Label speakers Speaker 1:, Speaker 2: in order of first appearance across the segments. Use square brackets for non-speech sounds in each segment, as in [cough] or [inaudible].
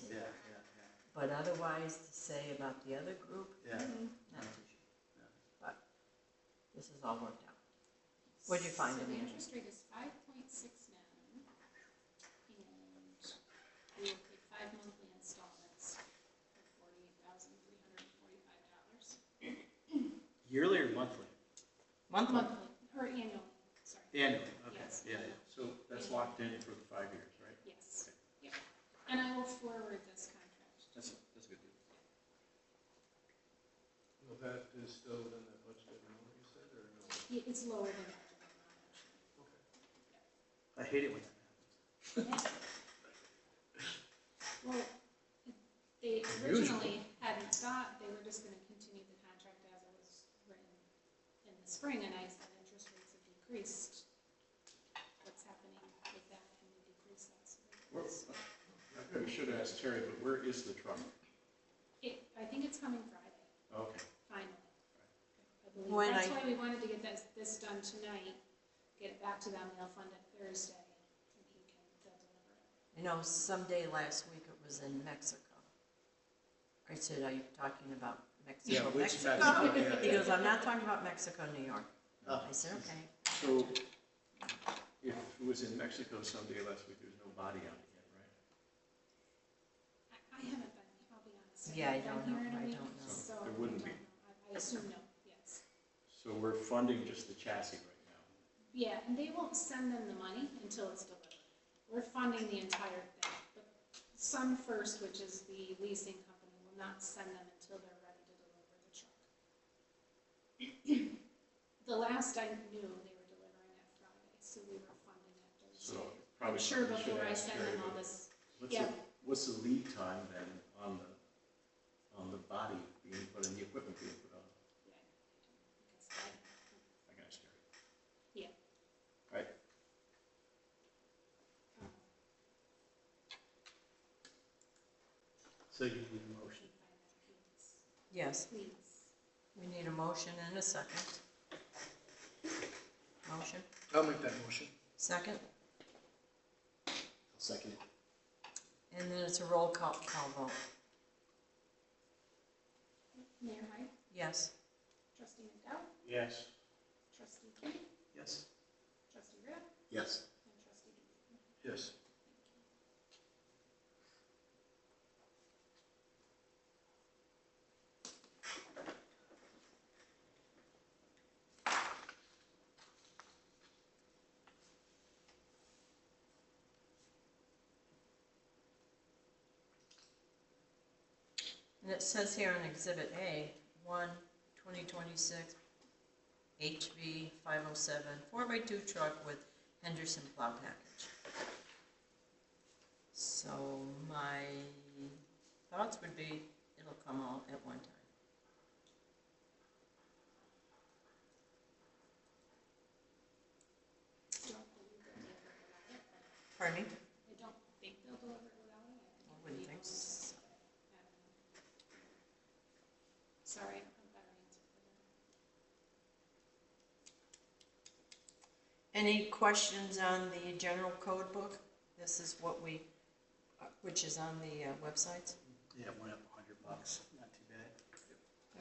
Speaker 1: to.
Speaker 2: yeah,
Speaker 1: But otherwise, to say about the other group,
Speaker 2: yeah, yeah.
Speaker 1: not too sure. But this is all worked out. What'd you find,
Speaker 3: So the
Speaker 1: Amanda?
Speaker 3: interest rate is five point six nine, and we will pay five monthly installments of forty-eight thousand three hundred and forty-five dollars.
Speaker 2: Yearly or monthly?
Speaker 1: Monthly.
Speaker 3: Monthly, or annual, sorry,
Speaker 2: Annually, okay,
Speaker 3: Yes.
Speaker 2: yeah, yeah. So that's locked in for the five years, right?
Speaker 3: yes, yeah. And I will forward this contract to
Speaker 2: That's, that's a good deal.
Speaker 4: Well, that is still within that budgeted amount you said, or no?
Speaker 3: Yeah, It's lower than that. denomination.
Speaker 2: I hate it when that happens.
Speaker 3: Well, they
Speaker 2: Unusual.
Speaker 3: originally hadn't thought, they were just gonna continue the contract as it was written in the spring, and I said interest rates have decreased. What's happening with that, can we decrease that? So
Speaker 5: Well,
Speaker 3: it's-
Speaker 5: I probably should ask Terry, but where is the truck?
Speaker 3: It, I think it's coming Friday,
Speaker 5: Okay.
Speaker 3: finally. I
Speaker 1: When
Speaker 3: believe, that's
Speaker 1: I-
Speaker 3: why we wanted to get this, this done tonight, get it back to them, they'll fund it Thursday, and he can, they'll deliver it.
Speaker 1: You know, someday last week it was in Mexico. I said, are you talking about
Speaker 2: Yeah,
Speaker 1: Mexico,
Speaker 2: which
Speaker 1: Mexico?
Speaker 2: Mexico, yeah,
Speaker 1: [laughs] He
Speaker 2: yeah.
Speaker 1: goes, I'm not talking about Mexico, New York.
Speaker 2: Oh.
Speaker 1: I said, okay.
Speaker 5: So if it was in Mexico someday last week, there's no body on it yet, right?
Speaker 3: I I haven't been, I'll be honest.
Speaker 1: Yeah, I
Speaker 3: haven't
Speaker 1: don't
Speaker 3: been
Speaker 1: know.
Speaker 3: here in a
Speaker 1: I
Speaker 3: week,
Speaker 1: don't know.
Speaker 3: So.
Speaker 5: There
Speaker 3: I
Speaker 5: wouldn't
Speaker 3: don't
Speaker 5: be.
Speaker 3: know. I I assume no, yes.
Speaker 5: So we're funding just the chassis right now.
Speaker 3: Yeah, and they won't send them the money until it's delivered. We're funding the entire thing. But Sun First, which is the leasing company, will not send them until they're ready to deliver the truck. [clears throat] The last I knew, they were delivering it Friday, so we were funding it
Speaker 5: So
Speaker 3: Thursday. I'm
Speaker 5: probably
Speaker 3: sure
Speaker 5: we should
Speaker 3: before I
Speaker 5: ask
Speaker 3: send
Speaker 5: Terry,
Speaker 3: them all
Speaker 5: but
Speaker 3: this,
Speaker 5: what's the,
Speaker 3: yeah,
Speaker 5: what's the lead time then on the, on the body being put in, the equipment being put on?
Speaker 3: yeah. I guess that-
Speaker 5: I can ask Terry.
Speaker 2: So you need a motion.
Speaker 1: Yes,
Speaker 3: Please.
Speaker 1: we need a motion and a second. Motion,
Speaker 4: I'll make that motion.
Speaker 1: second,
Speaker 5: Second.
Speaker 1: and then it's a roll call, call vote.
Speaker 3: Mayor Hyde,
Speaker 1: Yes,
Speaker 3: trustee McDowell,
Speaker 5: Yes.
Speaker 3: trustee Keith,
Speaker 2: Yes.
Speaker 3: trustee Rapp,
Speaker 5: Yes.
Speaker 3: and trustee Ginsburg.
Speaker 4: Yes.
Speaker 1: and it says here on Exhibit A, one, 2026 HB 507, 4x2 truck with Henderson plow package. So my thoughts would be, it'll come all at one time.
Speaker 3: Don't believe they'll deliver it without it, but
Speaker 1: Pardon me?
Speaker 3: I don't think they'll deliver it without it. I
Speaker 1: I
Speaker 3: think
Speaker 1: wouldn't
Speaker 3: it'll be
Speaker 1: think
Speaker 3: on
Speaker 1: so.
Speaker 3: site. I don't know. Sorry, I don't have a better answer for that.
Speaker 1: Any questions on the general code book? This is what we, uh, which is on the uh, websites.
Speaker 2: Yeah, it went up a hundred bucks, not too bad.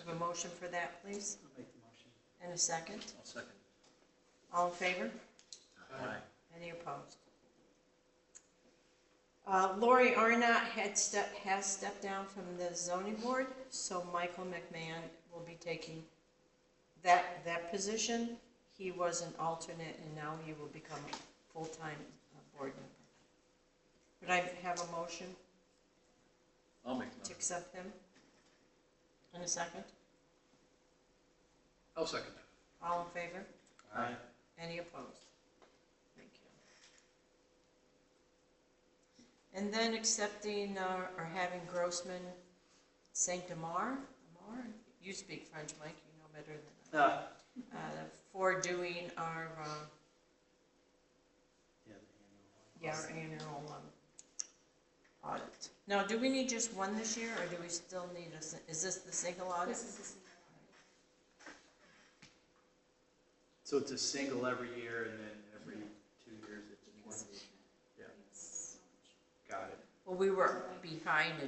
Speaker 1: Have a motion for that, please,
Speaker 2: I'll make the motion.
Speaker 1: and a second.
Speaker 2: I'll second.
Speaker 1: All in favor?
Speaker 4: Aye.
Speaker 1: Any opposed? Uh, Lori Arnott had step, has stepped down from the zoning board, so Michael McMahon will be taking that, that position. He was an alternate and now he will become a full-time uh, board member. Would I have a motion
Speaker 5: I'll make the
Speaker 1: to
Speaker 5: motion.
Speaker 1: accept him? In a second?
Speaker 4: I'll second that.
Speaker 1: All in favor?
Speaker 2: Aye.
Speaker 1: Any opposed? Thank you. And then accepting uh, or having Grossman Saint Amar, Amar, you speak French, Mike, you know better than
Speaker 2: Uh,
Speaker 1: I, uh, for doing our, uh,
Speaker 2: yeah, the annual one.
Speaker 1: yeah, our annual um, audit. Now, do we need just one this year, or do we still need a, si- is this the single audit?
Speaker 3: This is the single audit.
Speaker 2: So it's a single every year and then every two years it's
Speaker 3: Because
Speaker 2: one.
Speaker 3: we have,
Speaker 2: Yeah.
Speaker 3: we have so much.
Speaker 2: Got it.
Speaker 1: Well, we were behind in